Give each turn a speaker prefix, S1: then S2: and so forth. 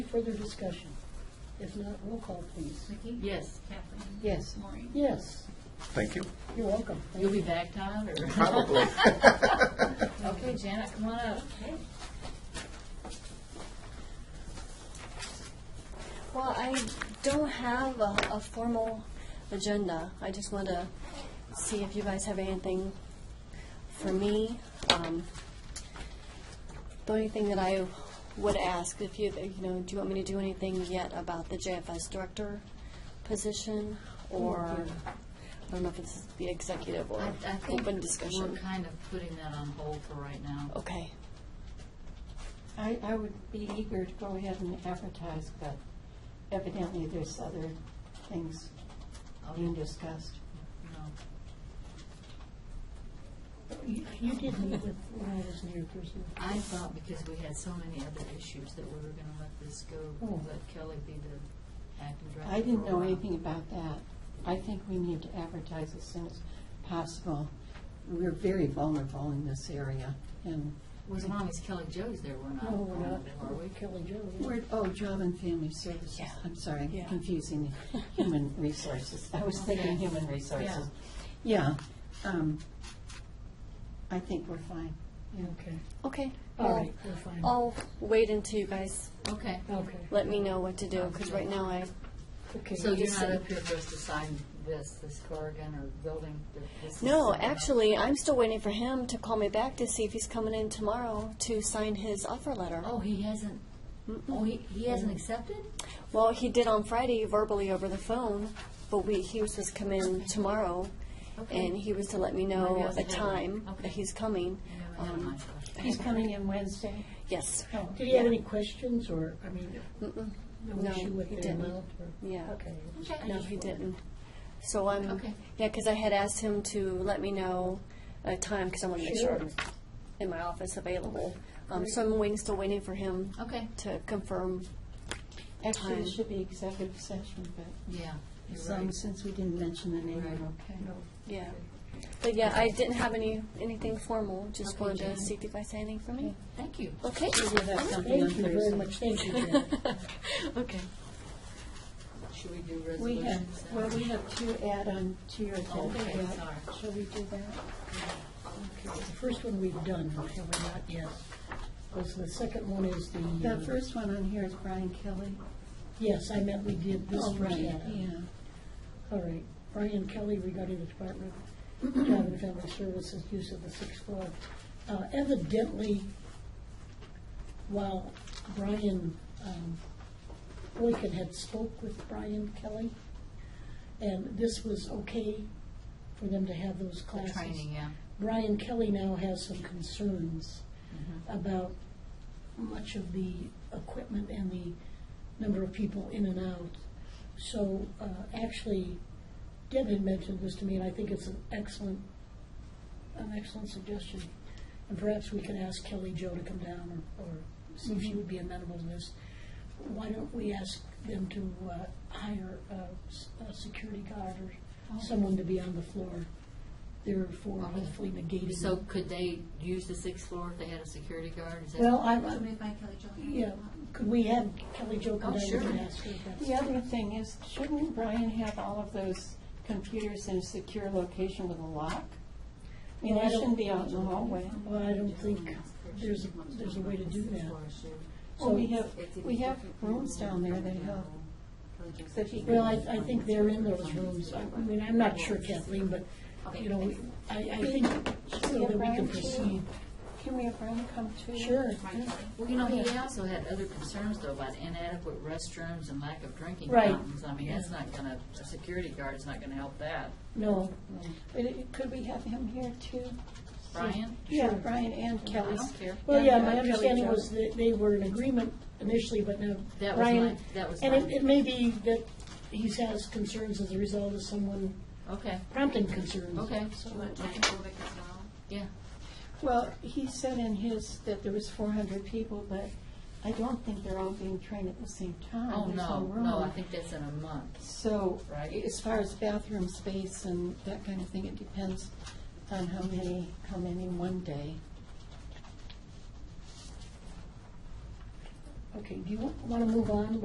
S1: further discussion? If not, roll call, please.
S2: Vicki?
S3: Yes.
S2: Kathleen?
S3: Yes.
S2: Maureen?
S1: Yes,
S4: Thank you.
S1: you're welcome. Thank
S3: You'll be back, Todd, or?
S4: Probably.
S3: Okay, Janet, come on up.
S5: Well, I don't have a, a formal agenda. I just want to see if you guys have anything for me. Um, the only thing that I would ask, if you, you know, do you want me to do anything yet about the JFS director position? Or, I don't know if it's the executive or
S3: I I think
S5: open
S3: we're
S5: discussion. Oh.
S3: kind of putting that on hold for right now.
S5: Okay,
S6: I, I would be eager to go ahead and advertise, but evidently there's other things
S3: Oh,
S6: being discussed.
S3: no.
S1: You you did meet with, when I was near person.
S3: I thought because we had so many other issues that we were going to let this go,
S1: Oh.
S3: let Kelly be the acting director.
S6: I didn't
S3: for a
S6: know
S3: while.
S6: anything about that. I think we need to advertise as soon as possible. We're very vulnerable in this area, and
S3: Well, As long as Kelly Jo's there, we're not.
S1: No, we're not,
S5: Oh.
S3: Are we?
S1: Kelly Jo.
S6: we're, oh, Job and Family Services,
S5: Yeah.
S6: I'm sorry,
S5: Yeah.
S6: confusing Human Resources. I was thinking
S3: Okay.
S6: Human Resources. Yeah, um, I think we're fine.
S1: Okay,
S5: okay.
S1: all
S5: Well,
S1: right, we're fine.
S5: I'll wait until you guys
S3: Okay.
S1: Okay,
S5: let me know what to do, because right now I
S1: okay.
S3: So you're
S5: just
S3: not
S5: say-
S3: up here for us to sign this, this Corrigan or building? th- this is
S5: No,
S3: something else.
S5: actually, I'm still waiting for him to call me back to see if he's coming in tomorrow to sign his offer letter.
S3: Oh, he hasn't, oh, he, he hasn't accepted?
S5: Well, he did on Friday verbally over the phone, but we, he was supposed to come in tomorrow,
S3: Okay.
S5: and he was to let me
S3: Maybe I
S5: know
S3: was
S5: a
S3: ahead of
S5: time
S3: him. Okay.
S5: that he's coming.
S3: No, never
S5: Um,
S3: mind. Okay.
S6: He's coming in Wednesday?
S5: Yes,
S6: Oh,
S1: Did you have any questions, or, I mean,
S5: Mm-mm.
S1: the issue with
S5: he
S1: the
S5: didn't.
S1: amount? or-
S5: yeah.
S1: Okay.
S3: Okay.
S5: No, he didn't. So I'm,
S3: Okay.
S5: yeah, because I had asked him to let me know a time, because I wanted to make sure
S1: Sure.
S5: I'm in my office available. Um, so I'm waiting, still waiting for him
S3: Okay,
S5: to confirm
S6: Actually,
S5: Time.
S6: it should be executive session, but
S3: yeah, you're
S6: some,
S3: right.
S6: since we didn't mention the name,
S3: Right.
S6: okay.
S5: Yeah. But yeah, I didn't have any, anything formal, just
S3: Okay,
S5: wanted to
S3: Jan.
S5: see if you guys had anything for me.
S3: Thank you.
S5: Okay?
S6: We'll have something on
S1: Thank you very
S6: Thursday.
S1: much, thank you, Jan.
S5: Okay.
S3: Should we do
S6: We have,
S3: resolutions? now?
S6: well, we have two add-on to your agenda.
S3: Okay,
S6: yet.
S3: sorry.
S6: Shall we do that?
S1: The first one we've done, have we not yet? Because the second one is the. uh,
S6: The first one on here is Brian Kelly.
S1: Yes, I meant we did this
S6: Oh,
S1: first.
S6: right,
S1: one.
S6: Yeah.
S1: All right, Brian Kelly regarding the Department of Job and Family Services use of the sixth floor. Uh, Evidently, while Brian um, Boykin had spoke with Brian Kelly, and this was okay for them to have those
S3: The
S1: classes.
S3: Training, yeah.
S1: Brian Kelly now has some concerns about much of the equipment and the number of people in and out. So uh, actually, Deb had mentioned this to me, and I think it's an excellent, an excellent suggestion. And perhaps we could ask Kelly Joe to come down or, or see if she would be amenable to this. Why don't we ask them to uh, hire a, s- a security guard or someone to be on the floor, therefore hopefully negating.
S3: So could they use the sixth floor if they had a security guard? Is that-
S1: Well, I,
S2: So made by Kelly Jo.
S1: yeah, could we have Kelly Jo come
S3: Oh,
S1: down and
S3: sure.
S1: ask her if
S6: The
S1: that's?
S6: other thing is, shouldn't Brian have all of those computers in a secure location with a lock? I mean,
S1: Well, I
S6: they shouldn't
S1: don't-
S6: be out in the hallway.
S1: Well, I don't think there's, a- there's a way to do that.
S3: Oh,
S6: Well, we have, we have rooms down there that help. that he
S1: Well, I, I think they're in those rooms. I mean, I'm not sure Kathleen, but, you know, we- I, I think so that we can proceed.
S6: Can we have Brian come too?
S1: Sure.
S3: Well, you know, he also had other concerns though about inadequate restrooms and lack of drinking
S1: Right.
S3: fountains. I mean, that's not gonna, a security guard's not gonna help that.
S1: No,
S6: But it- could we have him here too?
S3: Brian?
S6: Yeah, Brian and
S3: I
S6: Kelly.
S3: don't care.
S1: Well, yeah,
S6: And, uh,
S1: my
S6: Kelly
S1: understanding
S6: Jo.
S1: was that they were in agreement initially, but now
S3: That was
S1: Brian.
S3: my, that was
S1: And it,
S3: my,
S1: it may be that he has concerns as a result of someone
S3: okay,
S1: prompting concerns.
S3: okay,
S2: Do you want Jack Kovic as well?
S3: yeah.
S6: Well, he said in his that there was four hundred people, but I don't think they're all being trained at the same time.
S3: Oh,
S6: There's
S3: no,
S6: room.
S3: no, I think that's in a month.
S6: So,
S3: Right.
S6: as far as bathroom space and that kind of thing, it depends on how many come in in one day.
S1: Okay, do you want to move on